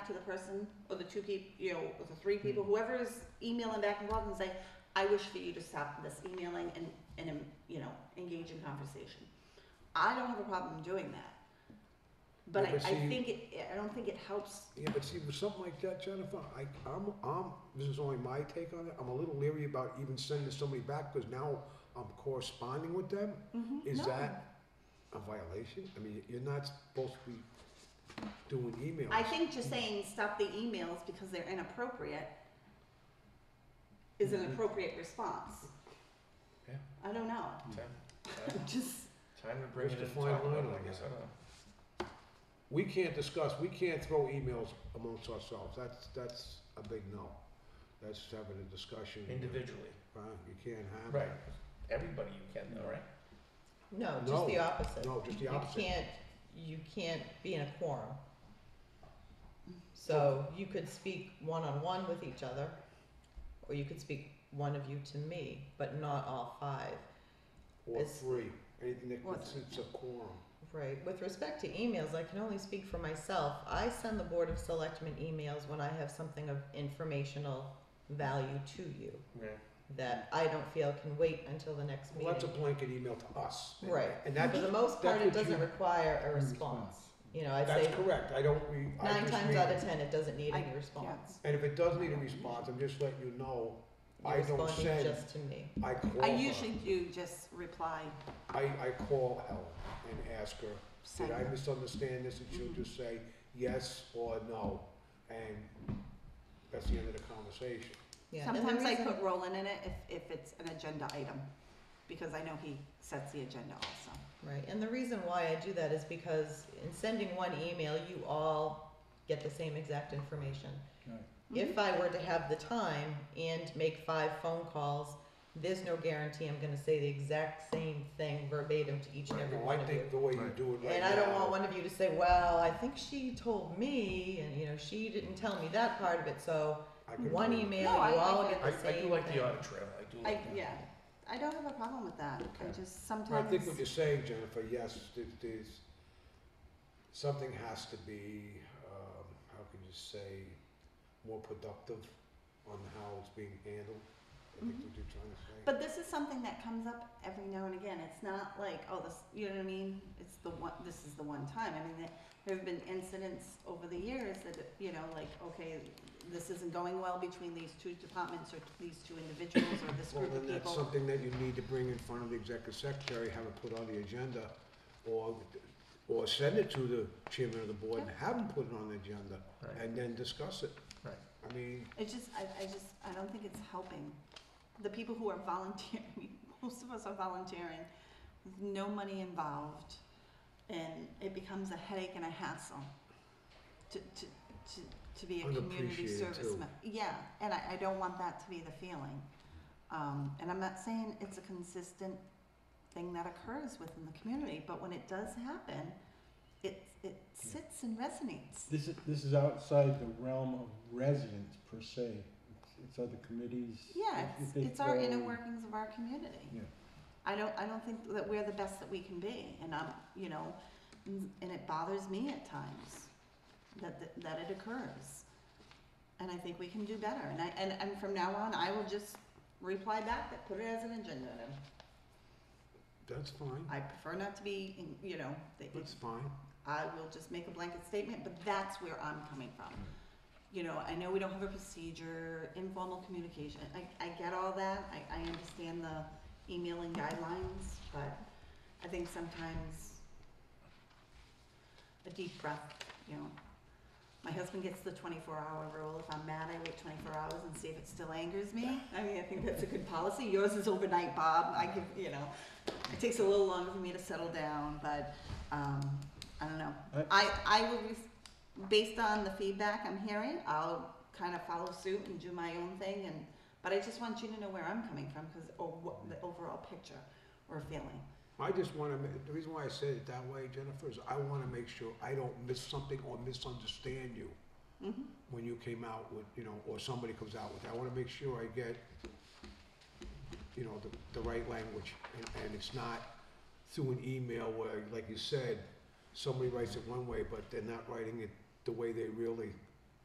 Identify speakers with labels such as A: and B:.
A: to the person or the two people, you know, or the
B: Hmm.
A: three people, whoever is emailing back and forth and say, I wish for you to stop this emailing and, and, um, you know, engage in conversation. I don't have a problem doing that. But I,
B: Yeah, but
A: I
B: see-
A: think it, I don't think it helps,
B: Yeah, but see, with something like that, Jennifer, I, I'm, I'm, this is only my take on it, I'm a little leery about even sending somebody back, because now I'm corresponding with them.
C: Mm-hmm.
B: Is
A: no.
B: that a violation? I mean, you're not supposed to be doing emails.
A: I think just saying stop the emails because they're inappropriate is an
B: Mhm.
A: appropriate response.
D: Yeah.
A: I don't know,
D: Time, time,
A: just,
D: time to bring
B: Where's
D: it
B: the
D: in and
B: fine
D: talk about
B: line
D: it,
B: on
D: I guess, I
B: that?
D: don't know.
B: We can't discuss, we can't throw emails amongst ourselves, that's, that's a big no. That's having a discussion.
D: Individually,
B: Right, you can't have
D: right,
B: that.
D: everybody you can though, right?
C: No, just the
B: No,
C: opposite.
B: Oh. No, just the
C: You
B: opposite.
C: can't, you can't be in a quorum.
B: Mm.
C: So you could speak one-on-one with each other, or you could speak one of you to me, but not all five.
B: Or
C: it's-
B: three, anything that
A: What's-
B: constitutes a quorum.
C: Right, with respect to emails, I can only speak for myself. I send the Board of Selectmen emails when I have something of informational value to you
D: Yeah.
C: that I don't feel can wait until the next
B: Well, that's a
C: meeting.
B: blanket email to us.
C: Right,
B: And
C: for
B: that's,
C: the most part,
B: that's
C: it
B: what
C: doesn't
B: you-
C: require a
E: Mm,
C: response. You know, I'd say
B: that's correct, I don't, we, I
C: nine
B: just
C: times
B: read
C: out
B: it.
C: of ten, it doesn't need
A: I-
C: any response.
B: And if it does need a response, I'm just letting you know,
C: You're
B: I don't
C: responding
B: send-
C: just to me.
B: I call
A: I
B: her.
A: usually do just reply,
B: I, I call Ellen and ask her, did I
A: Same.
B: misunderstand this? And she'll
A: Mhm.
B: just say yes or no. And that's the end of the conversation.
C: Yeah. and the
A: sometimes I
C: reason-
A: put Roland in it if, if it's an agenda item, because I know he sets the agenda also.
C: Right, and the reason why I do that is because in sending one email, you all get the same exact information.
A: Mm-hmm.
C: If I were to have the time and make five phone calls, there's no guarantee I'm gonna say the exact same thing verbatim to each and every
B: Well, I
C: one of you.
B: think the way you
E: Right.
B: do it right
C: And I don't want
B: now-
C: one of you to say, well, I think she told me, and you know, she didn't tell me that part of it, so
B: I could
C: one
B: agree.
C: email,
A: No, I
C: you all
A: like
C: get
D: I,
C: the same
D: I do like the
C: thing.
D: audit trail, I do
A: I,
D: like that.
A: yeah, I don't have a problem with that, I just
B: I
A: sometimes.
B: think what you're saying, Jennifer, yes, there- there's, something has to be, um, how can you say, more productive on how it's being handled. I think
A: Mhm.
B: what you're trying to say.
A: But this is something that comes up every now and again. It's not like, oh, this, you know what I mean? It's the one, this is the one time. I mean, there- there have been incidents over the years that, you know, like, okay, this isn't going well between these two departments or these two individuals or this
B: Well,
A: group
B: then
A: of
B: that's
A: people.
B: something that you need to bring in front of the executive secretary, have it put on the agenda, or, or send it to the chairman of the board and have him put it on the agenda,
D: Right.
B: and then discuss it.
D: Right.
B: I mean,
A: It's just, I, I just, I don't think it's helping. The people who are volunteering, most of us are volunteering, with no money involved, and it becomes a headache and a hassle to, to, to, to be a community
B: Unappreciated,
A: service
B: too.
A: member. Yeah, and I, I don't want that to be the feeling. Um, and I'm not saying it's a consistent thing that occurs within the community, but when it does happen, it, it sits and resonates.
E: This is, this is outside the realm of residents per se. It's- It's other committees.
A: Yeah,
E: If- if
A: it's,
E: they
A: it's our inner
E: throw-
A: workings of our community.
E: Yeah.
A: I don't, I don't think that we're the best that we can be, and I'm, you know, n- and it bothers me at times that, that, that it occurs. And I think we can do better, and I, and, and from now on, I will just reply back that put it as an agenda item.
B: that's fine,
A: I prefer not to be, in- you know, the-
B: that's fine.
A: I will just make a blanket statement, but that's where I'm coming from. You know, I know we don't have a procedure, informal communication, I, I get all that, I, I understand the emailing guidelines, but I think sometimes a deep breath, you know. My husband gets the twenty-four hour rule, if I'm mad, I wait twenty-four hours and see if it still angers me. I mean, I think that's a good policy, yours is overnight, Bob, I give, you know, it takes a little longer for me to settle down, but, um, I don't know.
E: I-
A: I, I will, res- based on the feedback I'm hearing, I'll kind of follow suit and do my own thing and, but I just want you to know where I'm coming from, cause, or what, the overall picture or feeling.
B: I just wanna, ma- the reason why I said it that way, Jennifer, is I wanna make sure I don't miss something or misunderstand you
A: Mhm.
B: when you came out with, you know, or somebody comes out with, I wanna make sure I get, you know, the, the right language, and, and it's not through an email where, like you said, somebody writes it one way, but they're not writing it the way they really